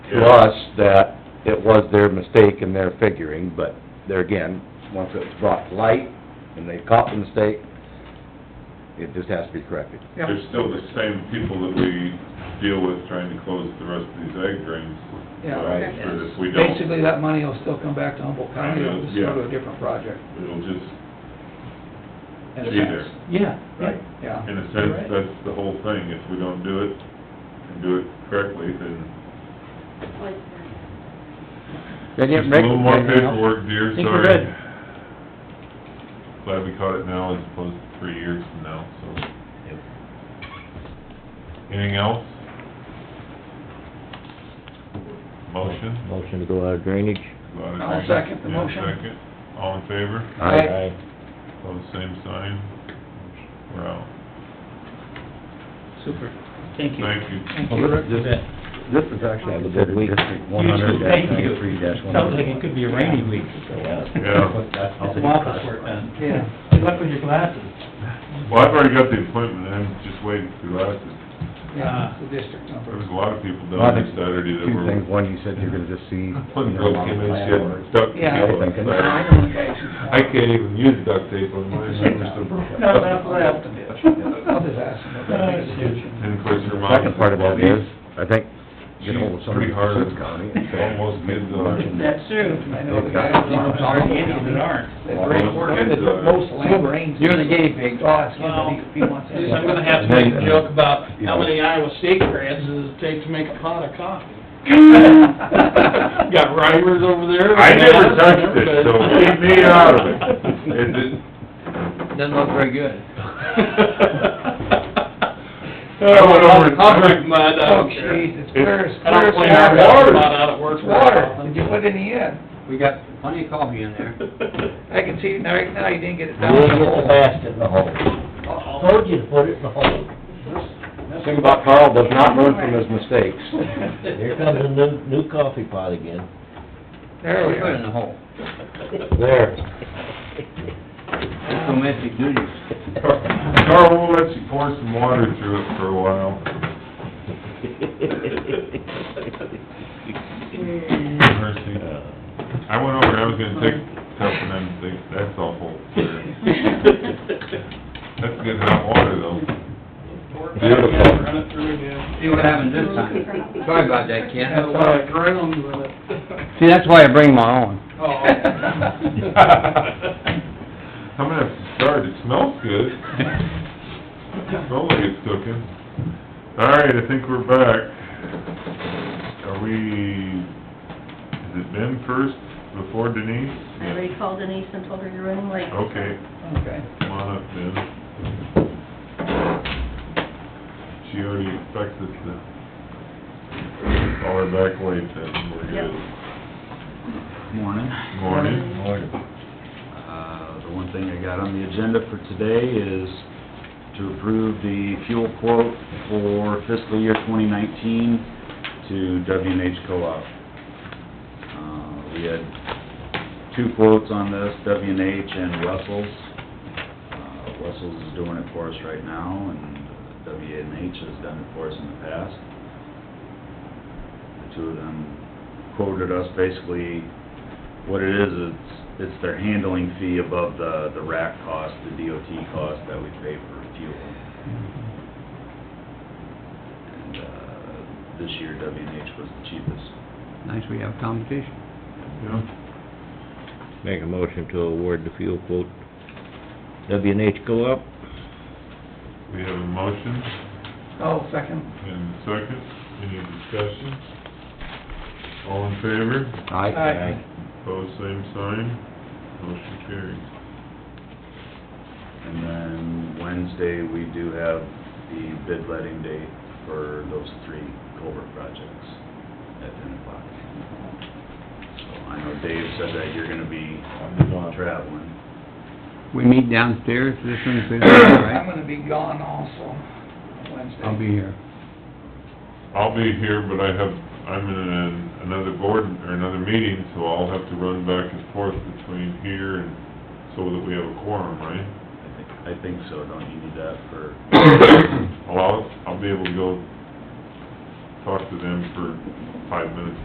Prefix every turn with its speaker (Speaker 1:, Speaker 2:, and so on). Speaker 1: to us that it was their mistake in their figuring, but there again, once it's brought to light and they caught the mistake, it just has to be corrected.
Speaker 2: Yeah.
Speaker 3: They're still the same people that we deal with trying to close the rest of these egg drains.
Speaker 2: Yeah,
Speaker 3: So I'm sure that if we don't,
Speaker 2: Basically, that money will still come back to Humboldt County, it'll just go to a different project.
Speaker 3: it'll just,
Speaker 2: And
Speaker 3: Be there.
Speaker 2: Yeah,
Speaker 3: Right.
Speaker 2: yeah.
Speaker 3: in a sense, that's the whole thing. If we don't do it and do it correctly, then
Speaker 1: Then you
Speaker 3: just a
Speaker 1: make-
Speaker 3: little more
Speaker 1: then you know-
Speaker 3: paperwork, dear,
Speaker 1: Think we're
Speaker 3: sorry.
Speaker 1: good.
Speaker 3: Glad we caught it now as opposed to three years from now, so. Anything else? Motion?
Speaker 4: Motion to go out of drainage?
Speaker 2: I'll second the
Speaker 3: Yeah,
Speaker 2: motion.
Speaker 3: second. All in favor?
Speaker 2: Aye.
Speaker 3: Pose same sign. We're out.
Speaker 2: Super.
Speaker 4: Thank you.
Speaker 3: Thank you.
Speaker 2: Thank you, Rick.
Speaker 4: You
Speaker 1: This
Speaker 4: bet.
Speaker 1: this is actually
Speaker 4: Have a good
Speaker 1: considered
Speaker 4: week.
Speaker 1: District
Speaker 4: You
Speaker 1: one hundred
Speaker 4: too, thank you.
Speaker 1: three one.
Speaker 4: Sounds like it could be a rainy week.
Speaker 3: Yeah.
Speaker 4: That's some office work done.
Speaker 2: Yeah.
Speaker 4: Good luck with your glasses.
Speaker 3: Well, I've already got the appointment, I'm just waiting for the last,
Speaker 4: Uh,
Speaker 2: Yeah, it's the district
Speaker 3: there
Speaker 2: number.
Speaker 3: was a lot of people
Speaker 1: Well, I
Speaker 3: down there
Speaker 1: think
Speaker 3: Saturday that
Speaker 1: Two things,
Speaker 3: were,
Speaker 1: one, you said you're gonna just see.
Speaker 3: putting rope in and shit, duct tape
Speaker 1: Yeah.
Speaker 3: on
Speaker 2: Yeah. I
Speaker 3: Saturday.
Speaker 2: know the guys who-
Speaker 3: I can't even use duct tape on mine, I'm just a broke.
Speaker 2: No, that's what I have to do. I'll just ask them if
Speaker 4: Uh,
Speaker 2: they make a suggestion.
Speaker 3: And of course, your mom.
Speaker 1: Second part of that is, I think, get hold of
Speaker 3: She's
Speaker 1: somebody
Speaker 3: pretty hard,
Speaker 1: from Cook County and say.
Speaker 3: almost did the,
Speaker 2: That's true. I know the guys.
Speaker 1: They've got-
Speaker 4: Sorry, any that aren't.
Speaker 2: That rain, that took most land rains.
Speaker 1: You're the guinea pig.
Speaker 2: Oh, it's him,
Speaker 5: Well,
Speaker 2: if he wants
Speaker 5: Yes,
Speaker 2: it.
Speaker 5: I'm gonna have to make a joke about how many Iowa State grads does it take to make a pot of coffee. Got rivers over there.
Speaker 3: I never touched it, so leave me out of it. It didn't-
Speaker 4: Doesn't look very good.
Speaker 3: I went over to-
Speaker 5: I'll drink mud, Oh, I
Speaker 2: Oh,
Speaker 5: don't care.
Speaker 2: jeez, it's clear as
Speaker 5: I don't
Speaker 2: clear
Speaker 5: clean
Speaker 2: as
Speaker 5: our
Speaker 2: water.
Speaker 5: water pot out at work.
Speaker 2: It's water. Did you put any in?
Speaker 4: We got plenty of coffee in there.
Speaker 2: I can see, now, now you didn't get it down.
Speaker 4: We'll get the best in the hole.
Speaker 2: Uh-oh.
Speaker 4: Told you to put it in the hole.
Speaker 1: Thing about Carl does not learn from his mistakes.
Speaker 4: Here comes a new, new coffee pot again.
Speaker 2: There we
Speaker 4: in the
Speaker 2: go.
Speaker 4: hole.
Speaker 1: There.
Speaker 4: Domestic duties.
Speaker 3: Carl, we'll let you pour some water through it for a while. Mercy. I went over, I was gonna take stuff and then think, that's awful.
Speaker 6: uh,
Speaker 3: That's good hot water though.
Speaker 1: Beautiful.
Speaker 5: Run it through again.
Speaker 4: See what happens this time. Sorry about that, Ken.
Speaker 5: Have a lot of ground with it.
Speaker 4: See, that's why I bring my own.
Speaker 3: I'm gonna have to start, it smells good. Smells like it's cooking. All right, I think we're back. Are we, is it Ben first before Denise?
Speaker 6: I already called Denise and told her you're running late.
Speaker 3: Okay,
Speaker 2: Okay.
Speaker 3: come on up, Ben. She already expects us to call her back late, then we're good.
Speaker 7: Morning.
Speaker 3: Morning.
Speaker 7: Uh, The one thing I got on the agenda for today is to approve the fuel quote for fiscal year 2019 to W&H Co-op. Uh, We had two quotes on this, W&H and Russell's. Uh, Russell's is doing it for us right now, and W&H has done it for us in the past. The two of them quoted us basically what it is, it's, it's their handling fee above the, the rack cost, the DOT cost that we pay for fuel. And, uh, this year W and H was the cheapest.
Speaker 4: Nice we have competition.
Speaker 3: Yeah.
Speaker 4: Make a motion to award the fuel quote. W and H go up.
Speaker 3: We have a motion
Speaker 2: Oh, second.
Speaker 3: and a second. Any discussion? All in favor?
Speaker 2: Aye.
Speaker 3: Pose same sign. Motion carries.
Speaker 7: And then Wednesday, we do have the bid letting date for those three culvert projects at ten o'clock. So I know Dave said that you're gonna be traveling.
Speaker 4: We meet downstairs this Wednesday,
Speaker 2: I'm gonna be gone also Wednesday.
Speaker 4: I'll be here.
Speaker 3: I'll be here, but I have, I'm in an- another board, or another meeting, so I'll have to run back and forth between here and so that we have a quorum, right?
Speaker 7: I think, I think so, don't you need that for?
Speaker 3: I'll, I'll be able to go talk to them for five minutes